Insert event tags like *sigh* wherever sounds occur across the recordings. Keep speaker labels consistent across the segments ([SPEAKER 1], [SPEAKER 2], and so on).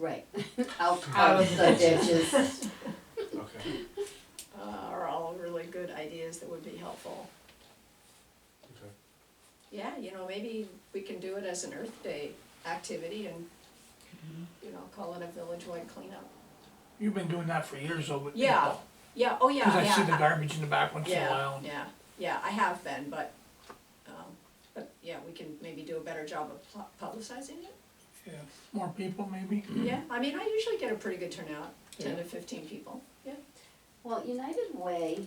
[SPEAKER 1] *laughs* Right, out out of the ditches.
[SPEAKER 2] Okay,
[SPEAKER 3] uh, are all really good ideas that would be helpful.
[SPEAKER 2] okay.
[SPEAKER 3] Yeah, you know, maybe we can do it as an Earth Day activity and, you know, call it a village-wide cleanup.
[SPEAKER 4] You've been doing that for years though, but.
[SPEAKER 3] Yeah, yeah, oh yeah, yeah.
[SPEAKER 4] Cause I see the
[SPEAKER 3] I-
[SPEAKER 4] garbage in the back once in a
[SPEAKER 3] Yeah,
[SPEAKER 4] while.
[SPEAKER 3] yeah, yeah, I have been, but, um, but yeah, we can maybe do a better job of pu- publicizing it.
[SPEAKER 4] Yeah, more people maybe.
[SPEAKER 3] Yeah, I mean, I usually get a pretty good turnout, ten to fifteen people, yeah.
[SPEAKER 1] *laughs* Well, United Way,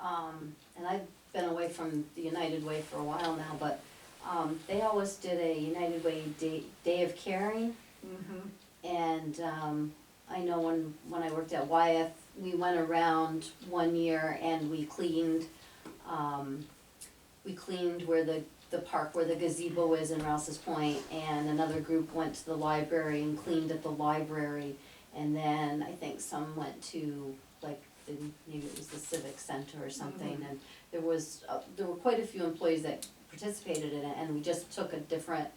[SPEAKER 1] um, and I've been away from the United Way for a while now, but, um, they always did a United Way Day, Day of Caring.
[SPEAKER 3] Mm-hmm.
[SPEAKER 1] And, um, I know when, when I worked at Wyeth, we went around one year and we cleaned, um, we cleaned where the, the park, where the gazebo is in Rouse's Point, and another group went to the library and cleaned at the library. And then I think some went to, like, the, maybe it was the civic center or something, and there was, uh, there were quite a few employees that participated in it, and we just took a different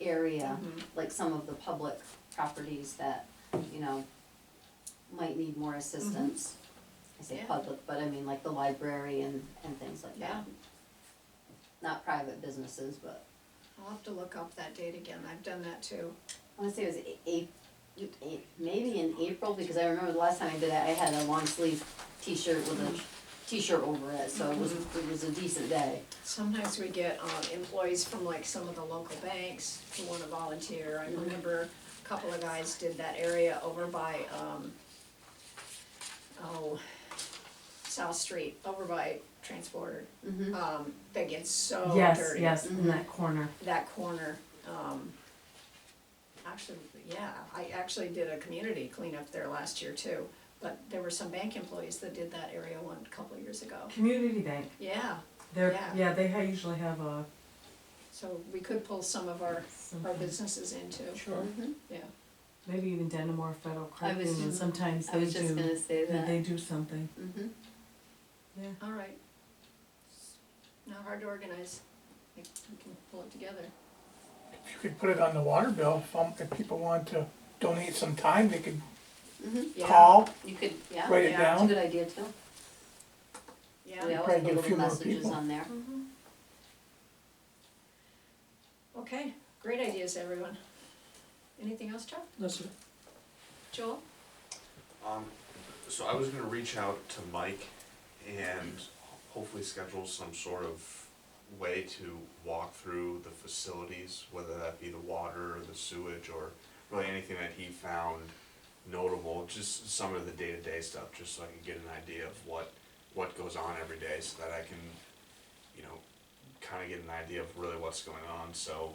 [SPEAKER 1] area,
[SPEAKER 3] Mm-hmm.
[SPEAKER 1] like some of the public properties that, you know, might need more assistance. I say
[SPEAKER 3] Yeah.
[SPEAKER 1] public, but I mean like the library and, and things like that
[SPEAKER 3] Yeah,
[SPEAKER 1] not private businesses, but
[SPEAKER 3] I'll have to look up that date again, I've done that too.
[SPEAKER 1] I wanna say it was a- a- a- maybe in April, because I remember the last time I did that, I had a long sleeve t-shirt with a t-shirt over it, so it was, it was a decent day.
[SPEAKER 3] Sometimes we get um, employees from like some of the local banks who wanna volunteer.
[SPEAKER 5] Mm-hmm.
[SPEAKER 3] I remember a couple of guys did that area over by, um, oh, South Street, over by Transporter.
[SPEAKER 1] Mhm.
[SPEAKER 3] Um, that gets so
[SPEAKER 1] Oh,
[SPEAKER 3] dirty.
[SPEAKER 5] Mm-hmm. Yes, yes,
[SPEAKER 1] Mm-hmm.
[SPEAKER 5] in that corner.
[SPEAKER 3] That corner, um, actually, yeah, I actually did a community cleanup there last year too. But there were some bank employees that did that area one, couple of years ago.
[SPEAKER 5] Community bank.
[SPEAKER 3] Yeah,
[SPEAKER 5] They're,
[SPEAKER 3] Yeah.
[SPEAKER 5] yeah, they ha- usually have a,
[SPEAKER 3] so we could pull some of our our
[SPEAKER 5] something,
[SPEAKER 3] businesses into,
[SPEAKER 4] Sure.
[SPEAKER 1] Mm-hmm.
[SPEAKER 3] yeah.
[SPEAKER 5] maybe even Denimore Federal
[SPEAKER 1] I
[SPEAKER 5] Credit
[SPEAKER 1] was-
[SPEAKER 5] Union, sometimes
[SPEAKER 1] I
[SPEAKER 5] they
[SPEAKER 1] was just
[SPEAKER 5] do,
[SPEAKER 1] gonna say
[SPEAKER 5] they-
[SPEAKER 1] that.
[SPEAKER 5] they do something,
[SPEAKER 1] Mm-hmm.
[SPEAKER 5] yeah.
[SPEAKER 3] All right. Not hard to organize, we we can pull it together.
[SPEAKER 4] If you could put it on the water bill, if, um, if people want to donate some time, they could
[SPEAKER 1] Mm-hmm,
[SPEAKER 3] Yeah,
[SPEAKER 4] call,
[SPEAKER 1] you could, yeah,
[SPEAKER 4] write it
[SPEAKER 3] yeah,
[SPEAKER 1] that's a
[SPEAKER 4] down.
[SPEAKER 1] good idea too. We
[SPEAKER 3] Yeah.
[SPEAKER 4] I'll-
[SPEAKER 1] always
[SPEAKER 4] Probably get
[SPEAKER 1] put
[SPEAKER 4] a
[SPEAKER 1] little
[SPEAKER 4] few more
[SPEAKER 1] messages
[SPEAKER 4] people.
[SPEAKER 1] on there.
[SPEAKER 3] Mhm. Okay, great ideas, everyone. Anything else, Chuck?
[SPEAKER 4] No, sir.
[SPEAKER 3] Joel?
[SPEAKER 2] Um, so I was gonna reach out to Mike and hopefully schedule some sort of way to walk through the facilities, whether that be the water or the sewage or really anything that he found notable, just some of the day-to-day stuff, just so I can get an idea of what, what goes on every day, so that I can, you know, kinda get an idea of really what's going on, so,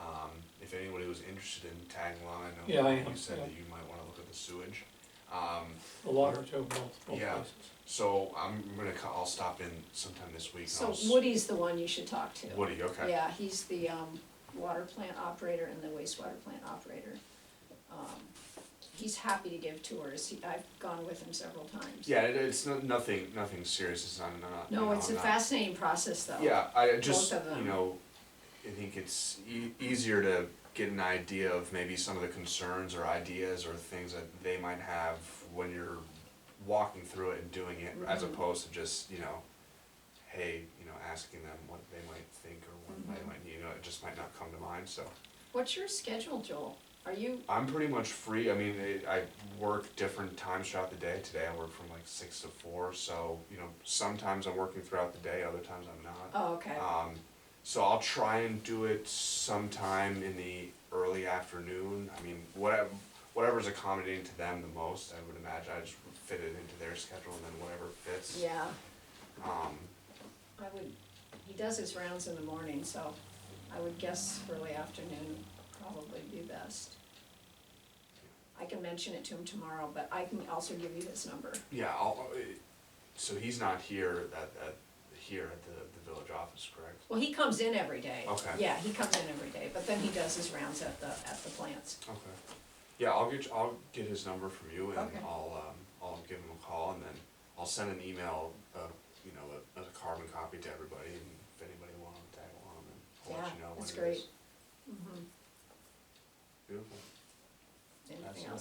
[SPEAKER 2] um, if anybody was interested in tagging along, I
[SPEAKER 6] Yeah, I
[SPEAKER 2] know
[SPEAKER 6] am,
[SPEAKER 2] you said
[SPEAKER 6] yeah.
[SPEAKER 2] that you might wanna look at the sewage. Um,
[SPEAKER 6] The water too, both, both
[SPEAKER 2] Yeah.
[SPEAKER 6] places.
[SPEAKER 2] so I'm gonna, co- I'll stop in sometime this week. and I'll
[SPEAKER 3] So
[SPEAKER 2] s-
[SPEAKER 3] Woody's the one you should talk to.
[SPEAKER 2] Woody, okay.
[SPEAKER 3] Yeah, he's the, um, water plant operator and the wastewater plant operator. Um, He's happy to give tours, He- I've gone with him several times.
[SPEAKER 2] Yeah, it, it's no, nothing, nothing serious, it's not, not. you
[SPEAKER 3] No,
[SPEAKER 2] know,
[SPEAKER 3] it's
[SPEAKER 2] I'm
[SPEAKER 3] a
[SPEAKER 2] not-
[SPEAKER 3] fascinating process though.
[SPEAKER 2] Yeah, I just,
[SPEAKER 3] of them.
[SPEAKER 2] you know, I think it's e- easier to get an idea of maybe some of the concerns or ideas or things that they might have when you're walking through it and doing it, as
[SPEAKER 3] Mhm.
[SPEAKER 2] opposed to just, you know, hey, you know, asking them what they might think or what they
[SPEAKER 3] Mhm.
[SPEAKER 2] might, you know, it just might not come to mind, so.
[SPEAKER 3] What's your schedule, Joel? Are you,
[SPEAKER 2] I'm pretty much free. I mean, it, I work different times throughout the day. Today I work from like six to four, so you know sometimes I'm working throughout the day, other times I'm not.
[SPEAKER 3] oh, okay,
[SPEAKER 2] Um, so I'll try and do it sometime in the early afternoon. I mean, whatever whatever's accommodating to them the most, I would imagine. I just fit it into their schedule and then whatever fits.
[SPEAKER 3] yeah,
[SPEAKER 2] Um,
[SPEAKER 3] I would, he does his rounds in the morning, so I would guess early afternoon probably be best. I can mention it to him tomorrow, but I can also give you his number.
[SPEAKER 2] yeah. I'll, uh, so he's not here at, at here at the, the village office, correct?
[SPEAKER 3] Well, he comes in every day.
[SPEAKER 2] Okay.
[SPEAKER 3] Yeah, he comes in every day, but then he does his rounds at the, at the plants.
[SPEAKER 2] Okay. Yeah, I'll get, I'll get his number from you and
[SPEAKER 3] Okay.
[SPEAKER 2] I'll, um, I'll give him a call and then I'll send an email, uh, you know, a, a carbon copy to everybody and if anybody wants to tag along, then I'll let
[SPEAKER 3] Yeah, Mm-hmm.
[SPEAKER 2] you know what it
[SPEAKER 3] that's
[SPEAKER 2] is.
[SPEAKER 3] great. Mhm.
[SPEAKER 2] Beautiful.
[SPEAKER 3] And
[SPEAKER 2] Uh,
[SPEAKER 3] something
[SPEAKER 2] That's it.
[SPEAKER 3] else.